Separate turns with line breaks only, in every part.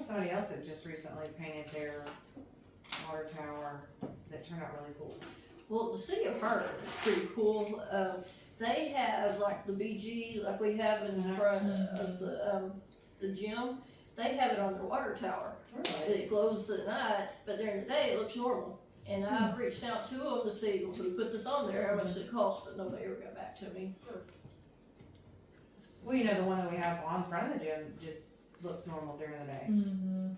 somebody else had just recently painted their water tower that turned out really cool.
Well, the city of Hartford is pretty cool. Um, they have like the BG, like we have in front of the, um, the gym. They have it on their water tower.
Really?
It glows at night, but during the day it looks normal. And I've reached out to them to see, well, who put this on there, how much it cost, but nobody ever got back to me.
Well, you know, the one that we have on front of the gym just looks normal during the day
Mm-hmm.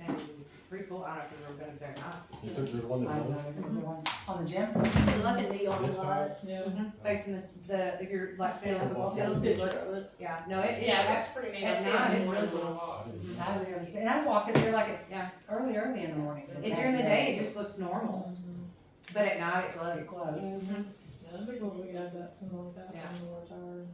and it's pretty cool. I don't know if you've ever been up there or not.
You said there's one that
I
don't?
know, because the one on the gym.
It's like a neon
This
light.
Yeah.
Facing this, the, if you're like standing on the ball
Got a
field, you
picture
look-
of it.
yeah, no, it, it's,
Yeah, that's pretty neat. I
it's
see
not,
it in
it's
the
really
morning.
cool.
I didn't-
I would never say, and I walk it there like it's
Yeah.
early, early in the morning.
It, during the day, it just looks normal, but at night it mm-hmm,
It
glows.
glows.
That'd be cool if we had that, something like that.
Yeah.
on the water tower.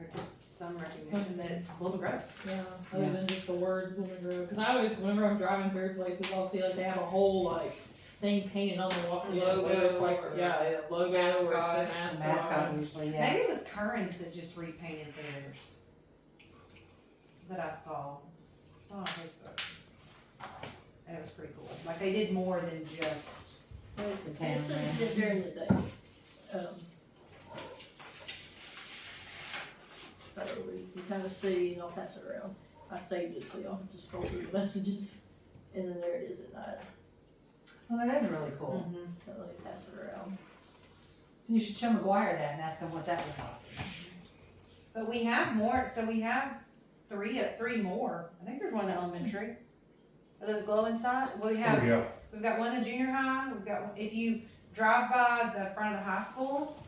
Or just some recognition that it's full of growth.
Yeah, other than just the words Blooming Grove. Because I always, whenever I'm driving through places, I'll see like they have a whole like thing painted on the walk
Logo
whether it's like
or
yeah, yeah, logo or
mascot.
it's the
The
mascot.
mascot usually, yeah.
Maybe it was Currens that just repainted theirs that I saw, saw on Facebook. That was pretty cool. Like they did more than just,
The town,
This is
yeah.
just during the day. Um, So we can kind of see, and I'll pass it around. I saved it, so y'all can just scroll through the messages. And then there it is at night,
Well, that is really
Mm.
cool.
Mm-hmm.
so let me pass it around.
So you should show McGuire that and ask him what that would cost.
but we have more, so we have three, three more. I think there's one in the elementary. Are those glow inside? We have
Oh, yeah.
We've got one in the junior high, we've got, one if you drive by the front of the high school,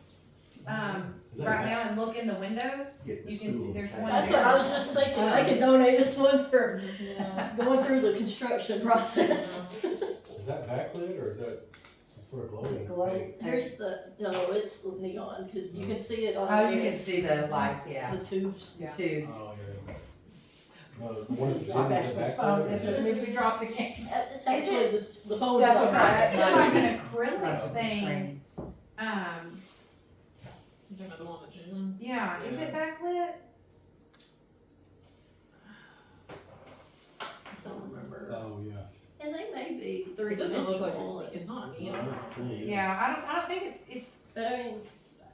um,
Is that
right
right?
now and look in the windows,
Get the
you can see,
school.
there's one
That's what I was just thinking, they could donate this one for
Yeah.
going through the construction process.
Is that backlit or is that some sort of glowing?
Glow.
thing?
Here's the, no, it's neon, cause you can see it on.
Oh, you can see the lights, yeah,
The tubes.
the
Yeah.
tubes.
Oh, yeah. No, the one at the gym,
I bet
is
it's
that
just
backlit?
phone,
or
it
is
just
that-
means we dropped again.
Uh, It's actually the, s- the phone's.
Oh, That's
not
what
right.
I-
It's like an
That's
acrylic
just a
thing,
screen.
um,
You talking about the one in the gym?
yeah, is it backlit?
I don't remember.
Oh, yes.
And they may be three
It doesn't look like
dimensional.
it's, it's not
No,
neon.
it's pretty.
Yeah, I don't, I don't think it's, it's,
But I mean,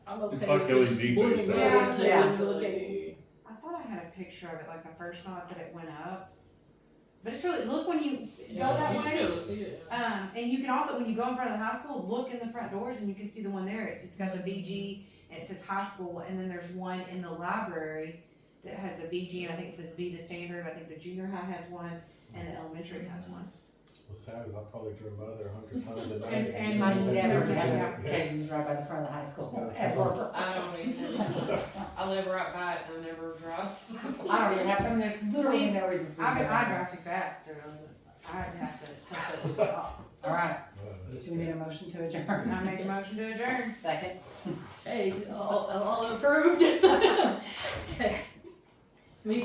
I'm okay.
It's like
with
LED based
blue and
out.
yellow too,
Yeah.
if you look at it.
I thought I had a picture of it, like the first night that it went up. But it's really, look when you go
Yeah,
that
you should be
way,
able to see it, yeah.
Um, and you can also, when you go in front of the high school, look in the front doors and you can see the one there. It's got the BG and it says high school, and then there's one in the library that has the BG and I think it says be the standard. I think the junior high has one and the elementary has one.
Well, sad is I probably drove by there a hundred times a night.
And, and my never
Yeah.
have occasion to drive by the front of the high school, ever.
I don't even, I live right by it and I never drive.
I don't even have, I mean, there's literally no reason for me
I,
to.
mean,
go
I
by.
drive too fast, or I'd have to completely stop.
All right,
Uh,
do we need a motion to adjourn?
I make a motion to adjourn.
Second.
Hey, all, all approved. Okay.